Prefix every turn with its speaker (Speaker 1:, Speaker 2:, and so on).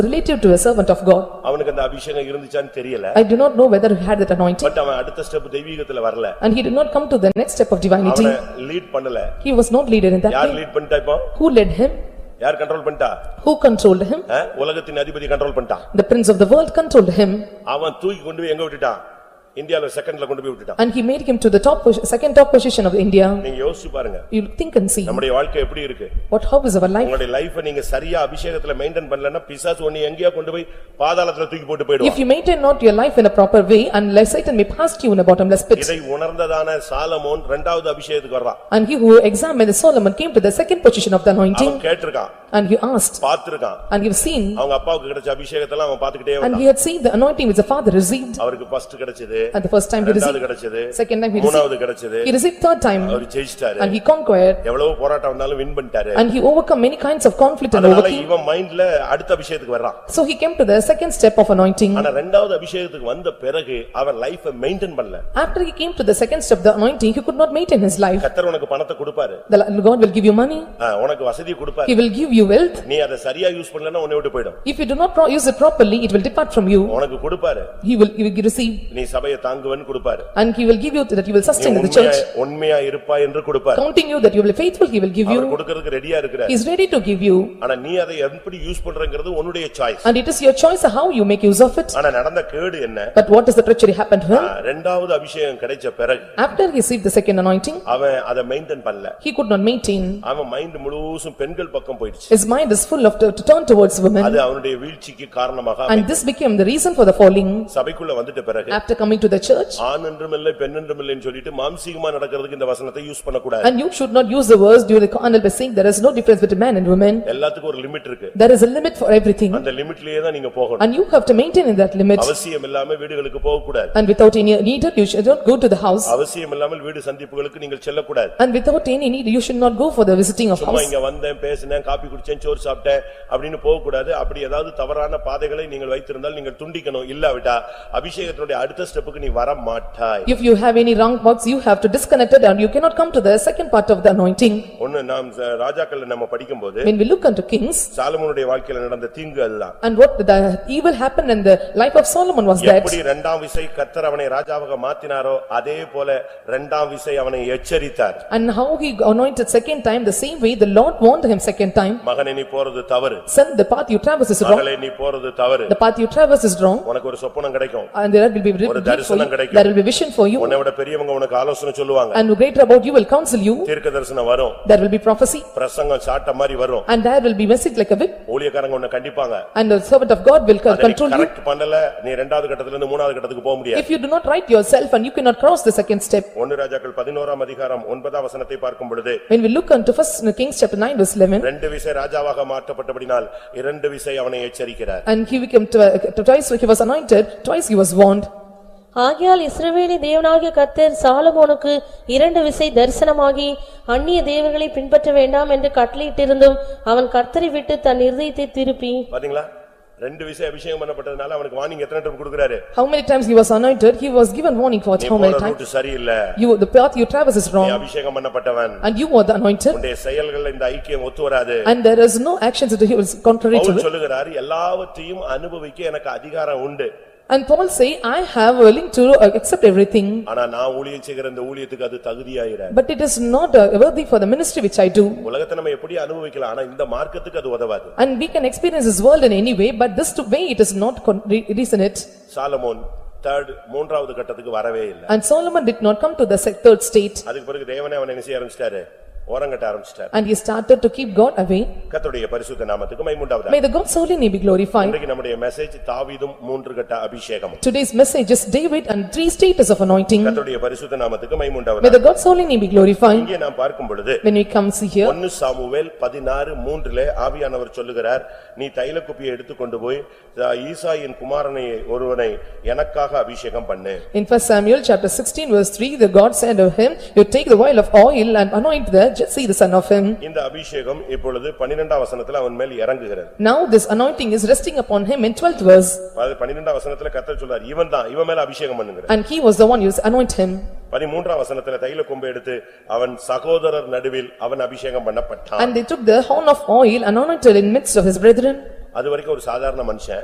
Speaker 1: relative to a servant of God.
Speaker 2: அவனுக்கு அந்த அபிஷேகம் இருந்துச்சான்னு தெரியல
Speaker 1: I do not know whether he had that anointing
Speaker 2: but அவன் அடுத்த ஸ்டெப் தெய்வீகத்துல வரல
Speaker 1: and he did not come to the next step of divinity.
Speaker 2: அவனை lead பண்ணல
Speaker 1: He was not leader in that
Speaker 2: யார்
Speaker 1: way.
Speaker 2: லீட் பண்ணிட்டா இப்போ
Speaker 1: Who led him?
Speaker 2: யார் control பண்ணிட்டா
Speaker 1: Who controlled him?
Speaker 2: ஆ? உலகத்தின் அதிபதி கண்ட்ரோல் பண்ணிட்டான்
Speaker 1: The prince of the world controlled him
Speaker 2: அவன் தூக்கி கொண்டு போய் எங்க விட்டுட்டான் இந்தியால செகண்ட்ல கொண்டு போய் விட்டுட்டான்
Speaker 1: and he made him to the top, pos- second top position of India.
Speaker 2: நீங்க யோசிச்சு பாருங்க
Speaker 1: You think and see,
Speaker 2: நம்முடைய வாழ்க்கை எப்படி இருக்கு
Speaker 1: what, how is our life?
Speaker 2: உங்களுடைய லைஃப நீங்க சரியா அபிஷேகத்துல மெயின்டைன் பண்ணலன்னா பிசாசு ஒண்ணு எங்கேயா கொண்டு போய் பாதாளத்துல தூக்கி போட்டு
Speaker 1: If
Speaker 2: போயிடுவான்
Speaker 1: you maintain not your life in a proper way, unless Satan may pass you in a bottomless pit.
Speaker 2: இதை உணர்ந்ததான சாலமோன் இரண்டாவது அபிஷேகத்துக்கு வர்றான்
Speaker 1: And he who examined Solomon came to the second position of the
Speaker 2: அவன்
Speaker 1: anointing
Speaker 2: கேட்டிருக்கான்
Speaker 1: and he asked
Speaker 2: பார்த்திருக்கான்
Speaker 1: and he was seen
Speaker 2: அவங்க அப்பாவுக்கு கிடைச்ச அபிஷேகத்தெல்லாம் அவன் பாத்துக்கிட்டே
Speaker 1: and
Speaker 2: வந்தான்
Speaker 1: he had seen the anointing which the father received
Speaker 2: அவருக்கு ஃபர்ஸ்ட் கிடைச்சது
Speaker 1: and the first time he
Speaker 2: இரண்டாவது
Speaker 1: received,
Speaker 2: கிடைச்சது
Speaker 1: second time he
Speaker 2: மூணாவது
Speaker 1: received,
Speaker 2: கிடைச்சது
Speaker 1: he received third time
Speaker 2: அவர் ஜெயிச்சிட்டாரு
Speaker 1: and he conquered
Speaker 2: எவ்வளவு போராட்டம் வந்தாலும் வின் பண்ணிட்டாரு
Speaker 1: and he overcome many kinds of conflict and
Speaker 2: அதனால
Speaker 1: overcame.
Speaker 2: இவன் மைண்ட்ல அடுத்த அபிஷேகத்துக்கு வர்றான்
Speaker 1: So he came to the second step of anointing.
Speaker 2: ஆனா ரெண்டாவது அபிஷேகத்துக்கு வந்த பிறகு அவன் லைஃப மெயின்டைன் பண்ணல
Speaker 1: After he came to the second step, the anointing, he could not maintain his life.
Speaker 2: கத்தர் உனக்கு பணத்தை கொடுப்பாரு
Speaker 1: The God will give you money,
Speaker 2: ஆ, உனக்கு வசதி கொடுப்பாரு
Speaker 1: he will give you wealth.
Speaker 2: நீ அதை சரியா யூஸ் பண்ணலன்னா உன்னை விட்டு போயிடும்
Speaker 1: If you do not pro- use it properly, it will depart from you.
Speaker 2: உனக்கு கொடுப்பாரு
Speaker 1: He will, you will receive
Speaker 2: நீ சபையை தாங்குவன்னு கொடுப்பாரு
Speaker 1: and he will give you that you will
Speaker 2: நீ
Speaker 1: sustain in the
Speaker 2: உண்மையா
Speaker 1: church.
Speaker 2: உண்மையா இருப்பா என்று கொடுப்பாரு
Speaker 1: Counting you that you will be faithful, he will give you.
Speaker 2: அவர் கொடுக்கறதுக்கு ரெடியா இருக்கிற
Speaker 1: He is ready to give you
Speaker 2: ஆனா நீ அதை எப்படி யூஸ் பண்றங்கிறது உன்னுடைய choice
Speaker 1: and it is your choice how you make use of it.
Speaker 2: ஆனா நடந்த கேடு என்ன
Speaker 1: But what is the treachery happened to
Speaker 2: ah,
Speaker 1: him?
Speaker 2: ரெண்டாவது அபிஷேகம் கிடைச்ச பிறகு
Speaker 1: After he received the second anointing,
Speaker 2: அவன் அதை மெயின்டைன் பண்ணல
Speaker 1: he could not maintain.
Speaker 2: அவன் மைண்ட் முழுசும் பெண்கள் பக்கம் போயிடுச்சு
Speaker 1: His mind is full of to to turn towards women
Speaker 2: அது அவனுடைய வீழ்ச்சிக்கு காரணமாக
Speaker 1: and this became the reason for the falling.
Speaker 2: சபைக்குள்ள வந்துட்ட பிறகு
Speaker 1: After coming to the church
Speaker 2: ஆண் என்றும் இல்லை பெண் என்றும் இல்லைன்னு சொல்லிட்டு மாம்சீகமா நடக்கிறதுக்கு இந்த வசனத்தை யூஸ் பண்ணக்கூடாது
Speaker 1: and you should not use the words during the carnal by saying there is no difference between man and woman.
Speaker 2: எல்லாத்துக்கும் ஒரு லிமிட் இருக்கு
Speaker 1: There is a limit for everything
Speaker 2: அந்த லிமிட்லயே தான் நீங்க போகணும்
Speaker 1: and you have to maintain in that limit
Speaker 2: அவசியம் இல்லாம வீடுகளுக்கு போகக்கூடாது
Speaker 1: and without any need you should not go to the house
Speaker 2: அவசியம் இல்லாமல் வீடு சந்திப்புகளுக்கு நீங்கள் செல்லக்கூடாது
Speaker 1: and without any need you should not go for the visiting of
Speaker 2: சும்மா
Speaker 1: house.
Speaker 2: இங்க வந்தேன் பேசினேன் காப்பி குடிச்சேன் சோறு சாப்பிட்டேன் அப்படின்னு போகக்கூடாது அப்படி ஏதாவது தவறான பாதைகளை நீங்கள் வைத்திருந்தால் நீங்கள் துண்டிக்கணும் இல்லாவிட்டா அபிஷேகத்தினுடைய அடுத்த ஸ்டெப்புக்கு நீ வர மாட்டாய்
Speaker 1: If you have any wrong thoughts, you have to disconnect it and you cannot come to the second part of the anointing.
Speaker 2: ஒன்னு நாம் ச- ராஜாக்கள்ல நம்ம படிக்கும்போது
Speaker 1: When we look unto kings
Speaker 2: சாலமோனுடைய வாழ்க்கையில நடந்த தீங்கு அதுதான்
Speaker 1: and what the evil happened in the life of Solomon was that
Speaker 2: எப்படி இரண்டாம் விசை கத்தர் அவனை ராஜாவாக மாத்தினாரோ அதே போல இரண்டாம் விசை அவனை எச்சரித்தார்
Speaker 1: and how he anointed second time, the same way the Lord warned him second time,
Speaker 2: மகனை நீ போறது தவறு
Speaker 1: son, the path you traverse is wrong,
Speaker 2: மகளே நீ போறது தவறு
Speaker 1: the path you traverse is wrong
Speaker 2: உனக்கு ஒரு சொப்பனம் கிடைக்கும்
Speaker 1: and there will be
Speaker 2: ஒரு
Speaker 1: rebuke for
Speaker 2: தரிசனம்
Speaker 1: you,
Speaker 2: கிடைக்கும்.
Speaker 1: there will be vision for you
Speaker 2: உன்னை விட பெரியவங்க உனக்கு ஆலோசனை சொல்லுவாங்க
Speaker 1: and greater about you will counsel you,
Speaker 2: தீர்க்க தரிசனம் வரும்
Speaker 1: there will be prophecy
Speaker 2: பிரசங்கம் சாட்ட மாதிரி வரும்
Speaker 1: and there will be message like a whip
Speaker 2: ஊழியக்காரங்க உன்னை கண்டிப்பாங்க
Speaker 1: and the servant of God will co-
Speaker 2: அதை நீ
Speaker 1: control you.
Speaker 2: கரெக்ட் பண்ணல நீ இரண்டாவது கட்டத்துல இருந்து மூணாவது கட்டத்துக்கு போக முடியாது
Speaker 1: If you do not right yourself and you cannot cross the second step,
Speaker 2: ஒன்னு ராஜாக்கள் பதினோராம் அதிகாரம் ஒன்பதாம் வசனத்தை பார்க்கும் பொழுது
Speaker 1: When we look unto first Kings chapter nine verse eleven,
Speaker 2: ரெண்டு விசை ராஜாவாக மாற்றப்பட்டபடினால் இரண்டு விசை அவனை எச்சரிக்கிறார்
Speaker 1: and he became twi- uh, twice he was anointed, twice he was warned.
Speaker 3: ஆகையால் இஸ்ரவேலி தேவனாகிய கர்த்தர் சாலமோனுக்கு இரண்டு விசை தரிசனமாகி அந்நிய தேவர்களை பின்பற்ற வேண்டாம் என்று கட்டளையிட்டிருந்தும் அவன் கர்த்தரை விட்டு தன் இருதயத்தை திருப்பி
Speaker 2: பாத்தீங்களா ரெண்டு விசை அபிஷேகம் பண்ணப்பட்டதுனால அவனுக்கு வார்னிங் எத்தனை டைம் கொடுக்கறாரு
Speaker 1: How many times he was anointed, he was given warning for
Speaker 2: நீ
Speaker 1: how
Speaker 2: போற
Speaker 1: many times?
Speaker 2: ரூட் சரியில்லை
Speaker 1: You, the path you traverse is
Speaker 2: நீ
Speaker 1: wrong,
Speaker 2: அபிஷேகம் பண்ணப்பட்டவன்
Speaker 1: and you are the anointed,
Speaker 2: உன்னுடைய செயல்கள் இந்த ஐக்கியம் ஒத்து வராது
Speaker 1: and there is no actions that he was contrary to
Speaker 2: Pavul
Speaker 1: it.
Speaker 2: சொல்லுகிறார் எல்லாவற்றையும் அனுபவிக்க எனக்கு அதிகாரம் உண்டு
Speaker 1: And Paul say, "I have willing to uh, accept everything,
Speaker 2: ஆனா நான் ஊழியம் செய்கிற இந்த ஊழியத்துக்கு அது தகுதியாயிராது
Speaker 1: but it is not uh, worthy for the ministry which I do."
Speaker 2: உலகத்தை நம்ம எப்படி அனுபவிக்கலாம் ஆனா இந்த மார்க்கத்துக்கு அது உதவாது
Speaker 1: And we can experience this world in any way, but this to- way it is not con- re- reason it.
Speaker 2: Solomon third மூன்றாவது கட்டத்துக்கு வரவே இல்லை
Speaker 1: And Solomon did not come to the se- third state,
Speaker 2: அதுக்கு பிறகு தேவனே அவனை என்ன செய்ய ஆரம்பிச்சிட்டாரு ஓரங்கட்ட ஆரம்பிச்சிட்டாரு
Speaker 1: and he started to keep God away.
Speaker 2: கர்த்தருடைய பரிசுத்த நாமத்துக்கு மைமுண்டாவதா
Speaker 1: May the God's holy name be glorified.
Speaker 2: இன்றைக்கு நம்முடைய மெசேஜ் தாவீதும் மூன்று கட்ட அபிஷேகம்
Speaker 1: Today's message is David and three status of anointing.
Speaker 2: கர்த்தருடைய பரிசுத்த நாமத்துக்கு
Speaker 1: May
Speaker 2: மைமுண்டாவதா
Speaker 1: the God's holy name be glorified.
Speaker 2: இங்கே நாம் பார்க்கும் பொழுது
Speaker 1: When we come see here,
Speaker 2: ஒன்னு சாமுவேல் பதினாறு மூன்றிலே ஆவியானவர் சொல்லுகிறார் நீ தைல குப்பியை எடுத்துக்கொண்டு போய் தா- ஈசாயின் குமாரனை ஒருவனை எனக்காக அபிஷேகம் பண்ணு
Speaker 1: in first Samuel chapter sixteen verse three, the God said of him, "You take the oil of oil and anoint the Jesse the son of him."
Speaker 2: இந்த அபிஷேகம் இப்பொழுது பன்னிரெண்டாம் வசனத்துல அவன் மேல் இறங்குகிறது
Speaker 1: Now this anointing is resting upon him in twelfth verse,
Speaker 2: அது பன்னிரெண்டாம் வசனத்துல கர்த்தர் சொல்றார் இவன் தான் இவன் மேல அபிஷேகம் பண்ணுங்கிற
Speaker 1: and he was the one who anointed him.
Speaker 2: பதிமூன்றாம் வசனத்துல தைல கொம்பை எடுத்து அவன் சகோதரர் நடுவில் அவன் அபிஷேகம் பண்ணப்பட்டான்
Speaker 1: And they took the horn of oil and anointed in midst of his brethren.
Speaker 2: அது வரைக்கும் ஒரு சாதாரண மனுஷன்